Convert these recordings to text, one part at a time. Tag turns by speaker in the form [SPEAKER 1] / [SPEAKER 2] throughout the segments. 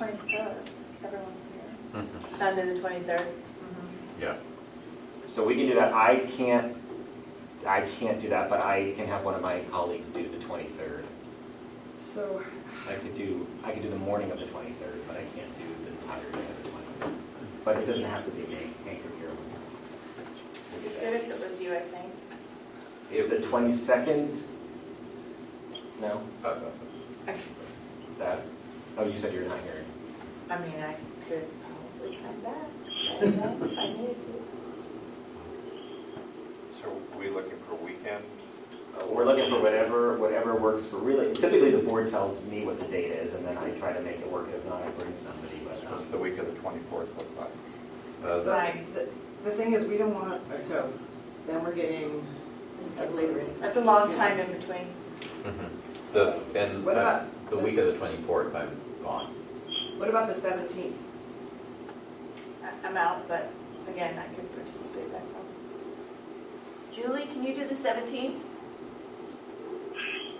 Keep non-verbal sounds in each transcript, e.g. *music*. [SPEAKER 1] twenty-third, everyone's here.
[SPEAKER 2] Mm-hmm.
[SPEAKER 3] Sunday the twenty-third? Mm-hmm.
[SPEAKER 2] Yeah,
[SPEAKER 4] So we can do that. I can't, I can't do that, but I can have one of my colleagues do the 23rd.
[SPEAKER 5] So,
[SPEAKER 4] I could do, I could do the morning of the 23rd, but I can't do the entire day of the 23rd. But it doesn't have to be me, anchor here.
[SPEAKER 3] Good
[SPEAKER 4] We'll do that.
[SPEAKER 3] if it was you, I think.
[SPEAKER 4] If the 22nd, no,
[SPEAKER 2] that- that-
[SPEAKER 4] that, oh, you said you're not here.
[SPEAKER 3] I mean, I could probably come *laughs* back, I don't know, if I needed to.
[SPEAKER 2] So we looking for weekend?
[SPEAKER 4] Uh, We're looking for whatever, whatever works for really, typically the board tells me what the date is and then I try to make it work. If not, I bring somebody, but. um,
[SPEAKER 2] What's the week of the 24th look like?
[SPEAKER 5] so
[SPEAKER 2] Uh,
[SPEAKER 3] Right.
[SPEAKER 5] the, the thing is, we don't want, so then we're getting later in.
[SPEAKER 3] That's a long time in between.
[SPEAKER 6] The, and
[SPEAKER 5] What
[SPEAKER 6] uh,
[SPEAKER 5] about
[SPEAKER 6] the week
[SPEAKER 5] this-
[SPEAKER 6] of the twenty-fourth, I'm gone.
[SPEAKER 5] What about the seventeenth?
[SPEAKER 3] I- I'm out, but again, I could participate back home.
[SPEAKER 7] Julie, can you do the 17th?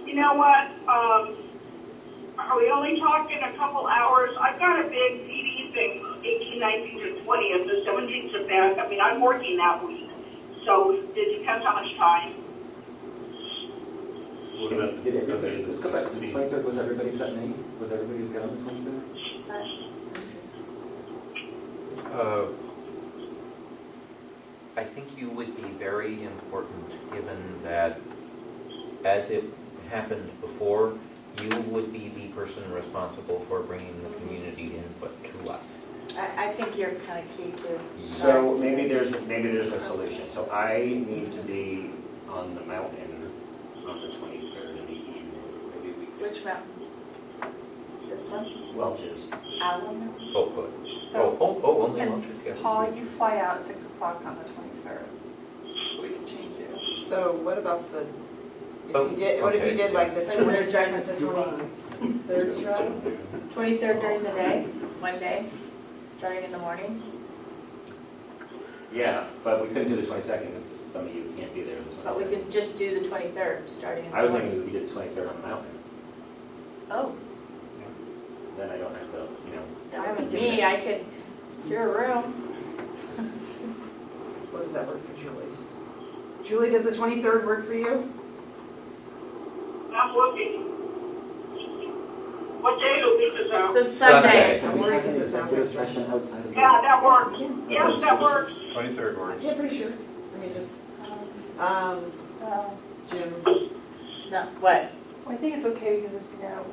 [SPEAKER 8] You know what, um, are we only talking a couple hours? I've got a big PD thing, 18, 19, and 20, and the 17th is bad. I mean, I'm working that week, so it depends how much time.
[SPEAKER 9] What about the
[SPEAKER 4] Did
[SPEAKER 9] Sunday,
[SPEAKER 4] everybody,
[SPEAKER 9] the
[SPEAKER 4] let's go back to the
[SPEAKER 9] 16th?
[SPEAKER 4] twenty-third, was everybody except me? Was everybody good on the twenty-third?
[SPEAKER 6] Uh, I think you would be very important, given that, as it happened before, you would be the person responsible for bringing the community input to us.
[SPEAKER 3] I, I think you're kind of key to.
[SPEAKER 4] So maybe there's, maybe there's a solution. So I need to be on the mountain on the twenty-third in the evening. Maybe we could,
[SPEAKER 3] Which mountain? This one?
[SPEAKER 4] Welch's.
[SPEAKER 3] Owl Mountain?
[SPEAKER 6] Oh, good. Oh,
[SPEAKER 1] So
[SPEAKER 6] oh, oh, only
[SPEAKER 1] and
[SPEAKER 6] Luttrell, yeah.
[SPEAKER 1] Paul, you fly out at six o'clock on the twenty-third.
[SPEAKER 3] We could change it.
[SPEAKER 5] So what about the, if
[SPEAKER 6] Oh,
[SPEAKER 5] you did, what if you
[SPEAKER 6] okay,
[SPEAKER 5] did like the
[SPEAKER 3] yeah.
[SPEAKER 5] twenty-second to twenty-third, July?
[SPEAKER 3] Twenty-third during the day, one day, starting in the morning.
[SPEAKER 4] Yeah, but we couldn't do the twenty-second because some of you can't be there. this
[SPEAKER 5] Oh,
[SPEAKER 3] But we
[SPEAKER 4] Wednesday.
[SPEAKER 3] could just do the twenty-third, starting in the
[SPEAKER 4] I was
[SPEAKER 3] morning.
[SPEAKER 4] thinking we did the twenty-third on the mountain,
[SPEAKER 3] Oh,
[SPEAKER 4] then I don't have to, you know,
[SPEAKER 3] that would be me, I could secure a room.
[SPEAKER 5] What does that work for Julie? Julie, does the twenty-third work for you?
[SPEAKER 8] I'm looking. What day will be this out?
[SPEAKER 3] It's a Sunday.
[SPEAKER 6] Sunday.
[SPEAKER 5] I'm worried because it sounds like Sunday.
[SPEAKER 8] Yeah, that works. Yes, that works.
[SPEAKER 2] 23rd works.
[SPEAKER 5] Yeah, pretty sure. I mean, just,
[SPEAKER 1] Um,
[SPEAKER 5] um,
[SPEAKER 1] Well,
[SPEAKER 5] Jim,
[SPEAKER 3] No, what?
[SPEAKER 1] I think it's okay because it's, you know,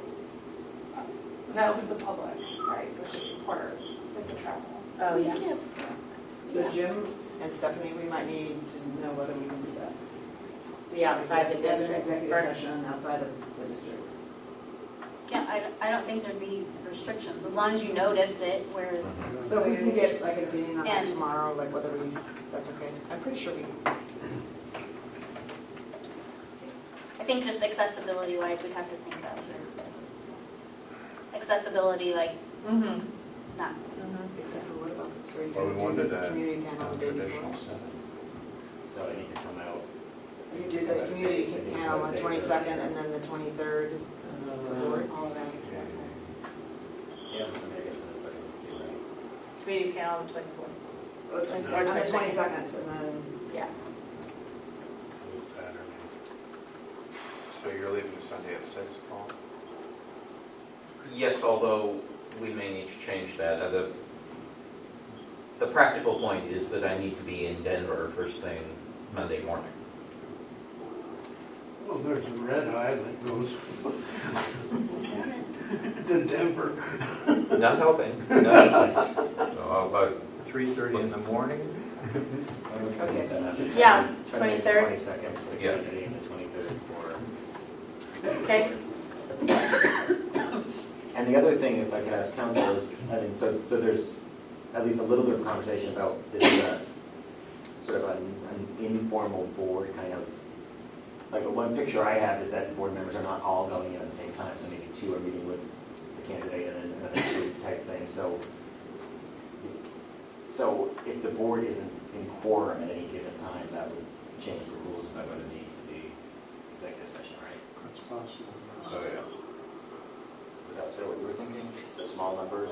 [SPEAKER 1] not open to the public, right, so it's just reporters, like the travel.
[SPEAKER 3] Oh, yeah.
[SPEAKER 5] so Jim and Stephanie, we might need to know whether we can do that.
[SPEAKER 3] Be outside the
[SPEAKER 5] As an
[SPEAKER 3] district.
[SPEAKER 5] Executive
[SPEAKER 3] first.
[SPEAKER 5] session outside of the district.
[SPEAKER 7] Yeah, I, I don't think there'd be restrictions, as long as you notice it where,
[SPEAKER 5] So we can get like an opinion on that
[SPEAKER 7] And-
[SPEAKER 5] tomorrow, like whether we, that's okay. I'm pretty sure we,
[SPEAKER 7] I think just accessibility wise, we'd have to think about it. Accessibility, like,
[SPEAKER 3] Mm-hmm.
[SPEAKER 7] not,
[SPEAKER 5] except for what about, so
[SPEAKER 2] Well, we
[SPEAKER 5] you do
[SPEAKER 2] wanted
[SPEAKER 5] the
[SPEAKER 2] a
[SPEAKER 5] community panel the day before?
[SPEAKER 2] traditional seven.
[SPEAKER 4] so I need to come out.
[SPEAKER 5] You do the community
[SPEAKER 4] I think
[SPEAKER 5] panel on
[SPEAKER 4] Wednesday,
[SPEAKER 5] twenty-second and then the twenty-third.
[SPEAKER 4] Yeah, I mean, I guess that's what I would do, right?
[SPEAKER 3] Community panel on the twenty-fourth.
[SPEAKER 5] On the
[SPEAKER 3] 22nd.
[SPEAKER 5] twenty-second and then,
[SPEAKER 3] Yeah.
[SPEAKER 9] Till Saturday.
[SPEAKER 2] So you're leaving Sunday at 6, Paul?
[SPEAKER 6] Yes, although we may need to change that. Uh, The, the practical point is that I need to be in Denver first thing Monday morning.
[SPEAKER 9] Well, there's a red eye that goes to Denver.
[SPEAKER 6] Not helping, not
[SPEAKER 9] *laughs*
[SPEAKER 6] helping. So I'll vote
[SPEAKER 2] 3:30 in the morning?
[SPEAKER 5] Okay.
[SPEAKER 3] Yeah, 23rd.
[SPEAKER 4] Twenty-second for the
[SPEAKER 6] Yeah.
[SPEAKER 4] community and the twenty-third for.
[SPEAKER 3] Okay.
[SPEAKER 4] And the other thing, if I could ask council, is, I mean, so, so there's at least a little bit of conversation about this, uh, sort of an an informal board kind of, like, one picture I have is that board members are not all going in at the same time, so maybe two are meeting with the candidate and then another two type thing, so. So if the board isn't in quorum at any given time, that would change the rules about whether it needs to be executive session, right?
[SPEAKER 9] That's possible.
[SPEAKER 4] Oh,
[SPEAKER 6] So, yeah.
[SPEAKER 4] Was that sort of what you were thinking? The small numbers?